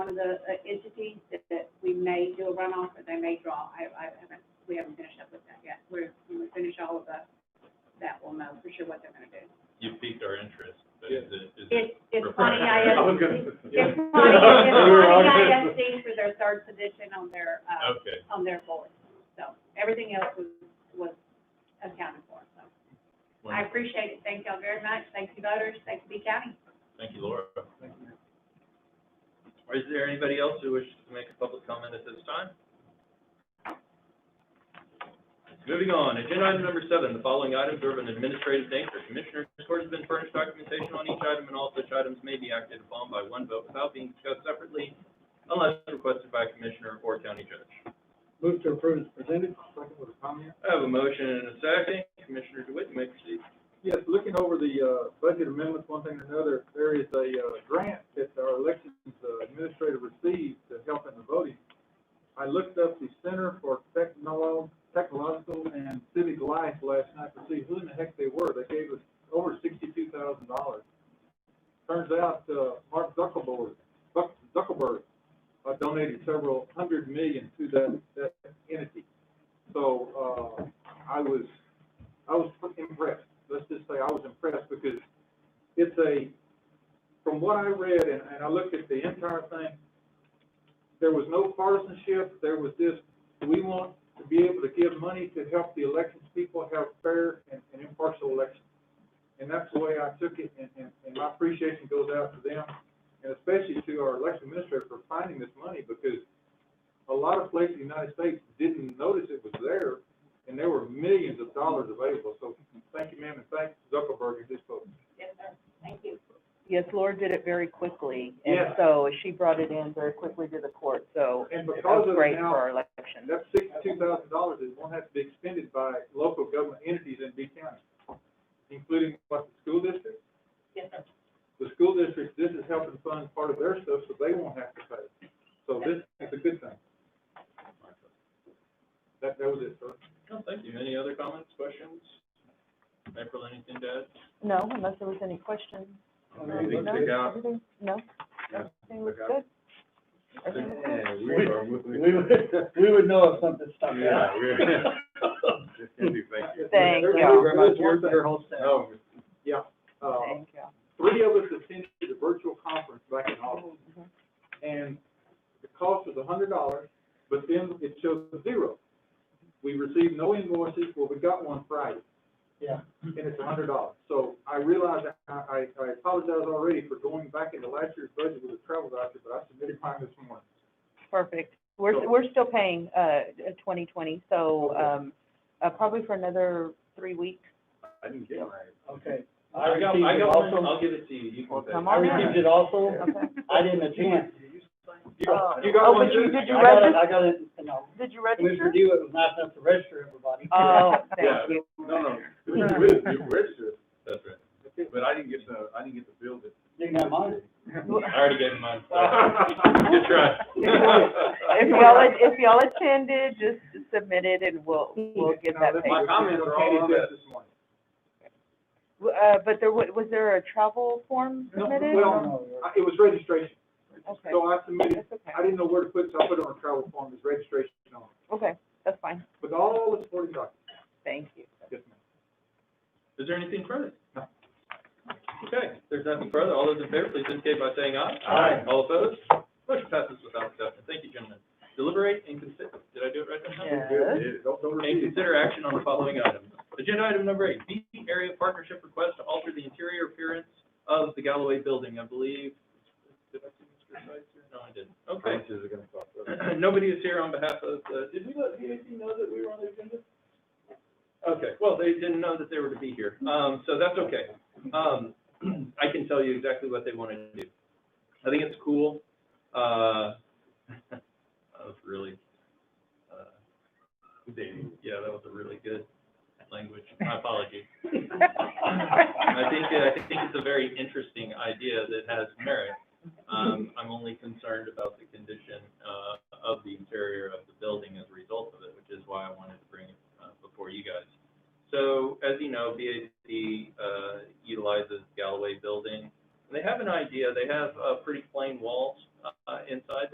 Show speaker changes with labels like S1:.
S1: of the uh, entities that, that we may do a runoff or they may draw. I, I haven't, we haven't finished up with that yet. We're, when we finish all of the, that we'll know for sure what they're gonna do.
S2: You piqued our interest, but is it, is it?
S1: It's, it's on
S2: Refresh.
S3: I was
S1: EIS,
S3: gonna.
S1: it's on, it's
S3: We're all
S1: on
S3: good.
S1: EISD for their third position on their, uh,
S2: Okay,
S1: on their board. So everything else was, was accounted for, so. I
S2: wonderful.
S1: appreciate it. Thank y'all very much. Thank you voters. Thank you B County.
S2: Thank you, Laura. Or Is there anybody else who wishes to make a public comment at this time? Moving on, agenda item number seven, the following items are of an administrative nature. Commissioners' court has been furnished documentation on each item, and all such items may be acted upon by one vote without being discussed separately unless requested by a commissioner or county judge.
S3: Move to approve is presented. Second with a comment.
S2: I have a motion and a second. Commissioner DeWitt, you may proceed.
S3: Yes, looking over the, uh, budget amendments, one thing or another, there is a, uh, grant that our elections uh, administrator received to help in the voting. I looked up the Center for Technolo- Technological and Civic Life last night to see who in the heck they were. They gave us over sixty-two thousand dollars. Turns out, uh, Mark Zuckerberg, Zuck- Zuckerberg, uh, donated several hundred million to that, that entity. So, uh, I was I was impressed, let's just say I was impressed because it's a, from what I read and, and I looked at the entire thing, there was no partisanship, there was just, we want to be able to give money to help the elections people have fair and, and impartial elections. And that's the way I took it and, and, and my appreciation goes out to them and especially to our election administrator for finding this money because a lot of places in the United States didn't notice it was there and there were millions of dollars available, so thank you, ma'am, and thank Zuckerberg and his folks.
S1: Yes, sir. Thank you.
S4: Yes, Laura did it very quickly, and
S3: Yeah.
S4: so she brought it in very quickly to the court, so
S3: And
S4: it
S3: because
S4: was
S3: of
S4: great for
S3: now,
S4: our election.
S3: that sixty-two thousand dollars is won't have to be expended by local government entities in B County, including what, the school district?
S1: Yes, sir.
S3: The school district, this is helping fund part of their stuff, so they won't have to pay. So this is a good thing. That, that was it, sir.
S2: No, thank you. Any other comments, questions? April, anything to add?
S4: No, unless there was any questions. No,
S3: Anything
S4: no,
S3: to add?
S4: everything- No, everything was
S3: Yeah.
S4: good. Everything was good.
S5: We, we would, we would know if something stuck out.
S4: Thank
S3: There's-
S4: you.
S3: there's one thing. No,
S5: whole
S3: yeah, uh,
S4: Thank you.
S3: three of us attended the virtual conference back in August.
S4: Mm-hmm.
S3: and the cost was a hundred dollars, but then it shows zero. We received no invoices, well, we got one Friday,
S5: Yeah.
S3: and it's a hundred dollars. So I realize, I, I, I apologize already for going back into last year's budget with a travel voucher, but I submitted mine this morning.
S4: Perfect. We're,
S3: So-
S4: we're still paying, uh, twenty twenty, so,
S3: Okay.
S4: um, uh, probably for another three weeks.
S3: I didn't get mine.
S5: Okay.
S2: I got,
S5: received
S2: I
S5: it
S2: got one,
S5: also.
S2: I'll give it to you, you can
S4: Well,
S2: say.
S4: come
S5: I
S4: on in.
S5: received it also.
S4: Okay.
S5: I didn't attend.
S3: You
S4: Oh.
S3: got, you got
S4: Oh,
S3: one
S4: but you-
S3: too?
S4: did you
S5: I got it,
S4: register?
S5: I got it, you know,
S4: Did you
S5: Commissioner
S4: register?
S5: Dewitt was nice enough to register everybody.
S4: Oh,
S3: Yeah.
S4: thank you.
S3: No, no, you registered.
S2: That's right.
S3: But I didn't get the, I didn't get the bill that.
S5: Didn't have mine.
S2: I already gave him mine. Good
S3: Good
S2: try.
S4: If y'all, if y'all attended, just submit it and we'll, we'll get that paid.
S3: My comments are all on that this morning.
S4: W- Uh, but there, wa- was there a travel form
S3: No,
S4: submitted?
S3: well,
S4: or-
S3: I- It was registration,
S4: Okay,
S3: so I submitted
S4: that's
S3: I
S4: okay,
S3: didn't know where to put it, so I put it on a travel form, it's registration on, it.
S4: okay, that's fine,
S3: with all the supporting documents.
S4: thank you.
S3: Yes, ma'am.
S2: Is there anything further?
S3: No.
S2: Okay, if there's nothing further, all those in favor, please indicate by saying aye.
S5: Aye.
S2: All opposed? Motion passes without exception. Thank you, gentlemen. Deliberate and consider, did I do it right that time?
S4: Yes.
S3: Don't,
S2: And
S3: don't repeat it.
S2: consider action on the following items. Agenda item number eight, B area partnership request to alter the interior appearance of the Galloway building, I believe. Did I see Mr. Seitz here? No, I didn't. Okay.
S3: Prices are gonna cost us.
S2: Nobody is here on behalf of, uh, did we let VAC know that we were on the agenda? Okay, well, they didn't know that they were to be here, um, so that's okay. Um, I can tell you exactly what they want to do. I think it's cool, uh, that was really, uh, yeah, that was a really good language, my apologies. I think, uh, I think it's a very interesting idea that has merit. Um, I'm only concerned about the condition, uh, of the interior of the building as a result of it, which is why I wanted to bring it, uh, before you guys. So, as you know, BAC, uh, utilizes Galloway Building And they have an idea, they have, uh, pretty plain walls, uh, inside,